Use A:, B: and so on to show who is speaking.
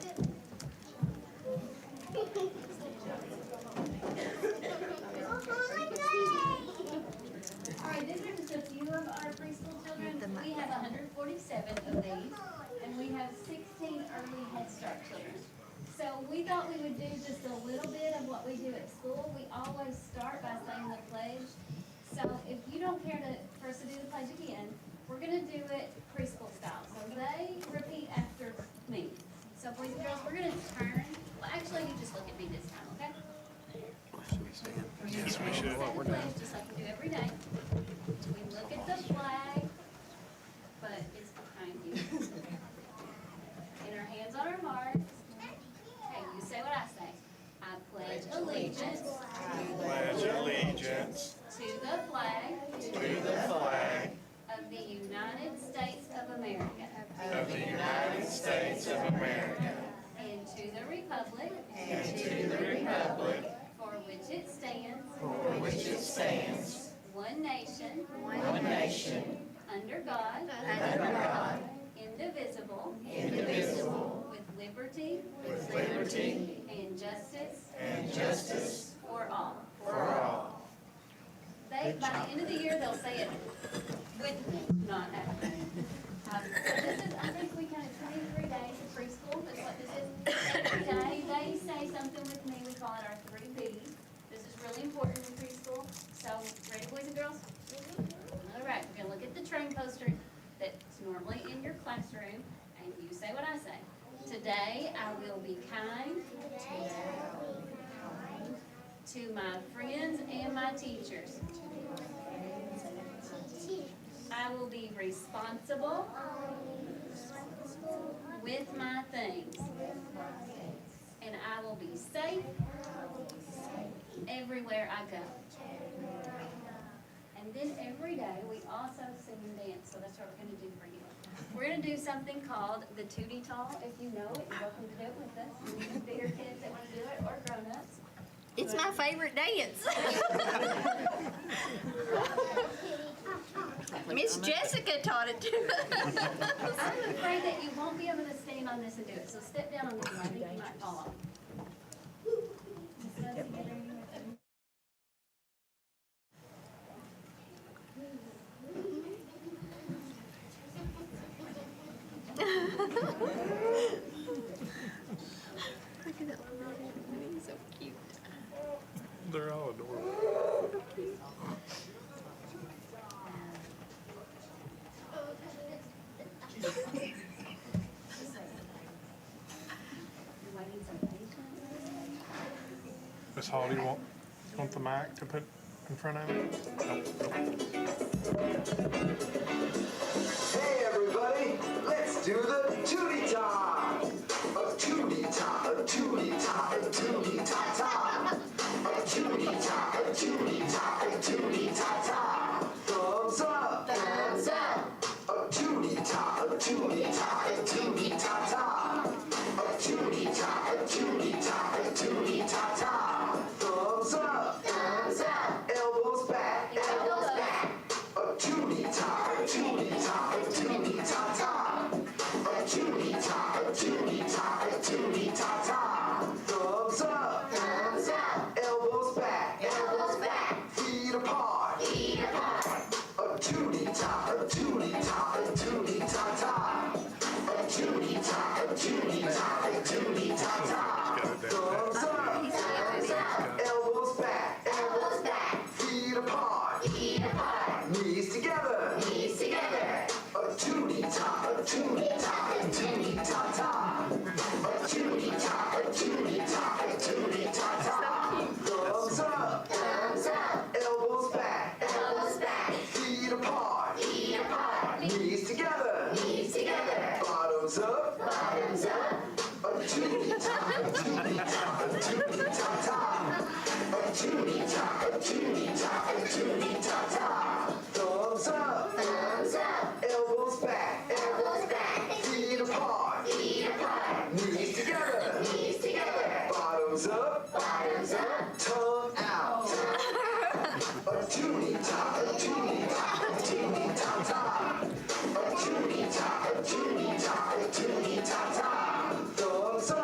A: we thought we would do just a little bit of what we do at school. We always start by saying the pledge. So if you don't care to, for us to do the pledge again, we're gonna do it preschool style. So they repeat after me. So boys and girls, we're gonna turn, well, actually, you just look at me this time, okay? Yes, we should. the pledge just like we do every day. We look at the flag, but it's behind you. And our hands on our marks. Okay, you say what I say. I pledge allegiance
B: pledge allegiance
A: to the flag
B: to the flag
A: of the United States of America
B: of the United States of America
A: and to the republic
B: and to the republic
A: for which it stands,
B: for which it stands,
A: one nation,
B: one nation,
A: under God,
B: under God,
A: indivisible,
B: indivisible,
A: with liberty
B: with liberty
A: and justice
B: and justice
A: for all.
B: for all.
A: They, by the end of the year, they'll say it with me, not after me. Um, so This is, I think we kind of twenty-three days of preschool, that's what this is. Every day, they say something with me, we call it our three Bs. This is really important in preschool, so ready, boys and girls? All right, we're gonna look at the train poster that's normally in your classroom, and you say what I say. Today, I will be kind to my friends and my teachers. I will be responsible with my things. And I will be safe everywhere I go. And then every day, we also sing and dance, so that's what we're gonna do for you. We're gonna do something called the Tootie Tall, if you know it, you're welcome to do it with us, Even bigger kids that wanna do it, or grown-ups.
C: It's my favorite dance. Miss Jessica taught it to us.
A: I'm afraid that you won't be able to stand on this and do it, so step down on this one, I think you might fall off.
C: Look at that little robot. He's so cute.
D: They're all adorable.
A: You're waiting so patiently.
D: Miss Hall, do you want, want the mic to put in front of it?
E: Hey everybody, let's do the tootie top. A tootie top, a tootie top, a tootie top top. A tootie top, a tootie top, a tootie top top. Thumbs up, thumbs up. A tootie top, a tootie top, a tootie top top. A tootie top, a tootie top, a tootie top top. Thumbs up, thumbs up. Elbows back, elbows back. A tootie top, a tootie top, a tootie top top. A tootie top, a tootie top, a tootie top top. Thumbs up, thumbs up. Elbows back, elbows back. Feet apart, feet apart. A tootie top, a tootie top, a tootie top top. A tootie top, a tootie top, a tootie top top. Thumbs up, thumbs up. Elbows back, elbows back. Feet apart, feet apart. Knees together, knees together. A tootie top, a tootie top, a tootie top top. A tootie top, a tootie top, a tootie top top. Thumbs up, thumbs up. Elbows back, elbows back. Feet apart, feet apart. Knees together, knees together. Bottoms up, bottoms up. A tootie top, a tootie top, a tootie top top. A tootie top, a tootie top, a tootie top top. Thumbs up, thumbs up. Elbows back, elbows back. Feet apart, feet apart. Knees together, knees together. Bottoms up,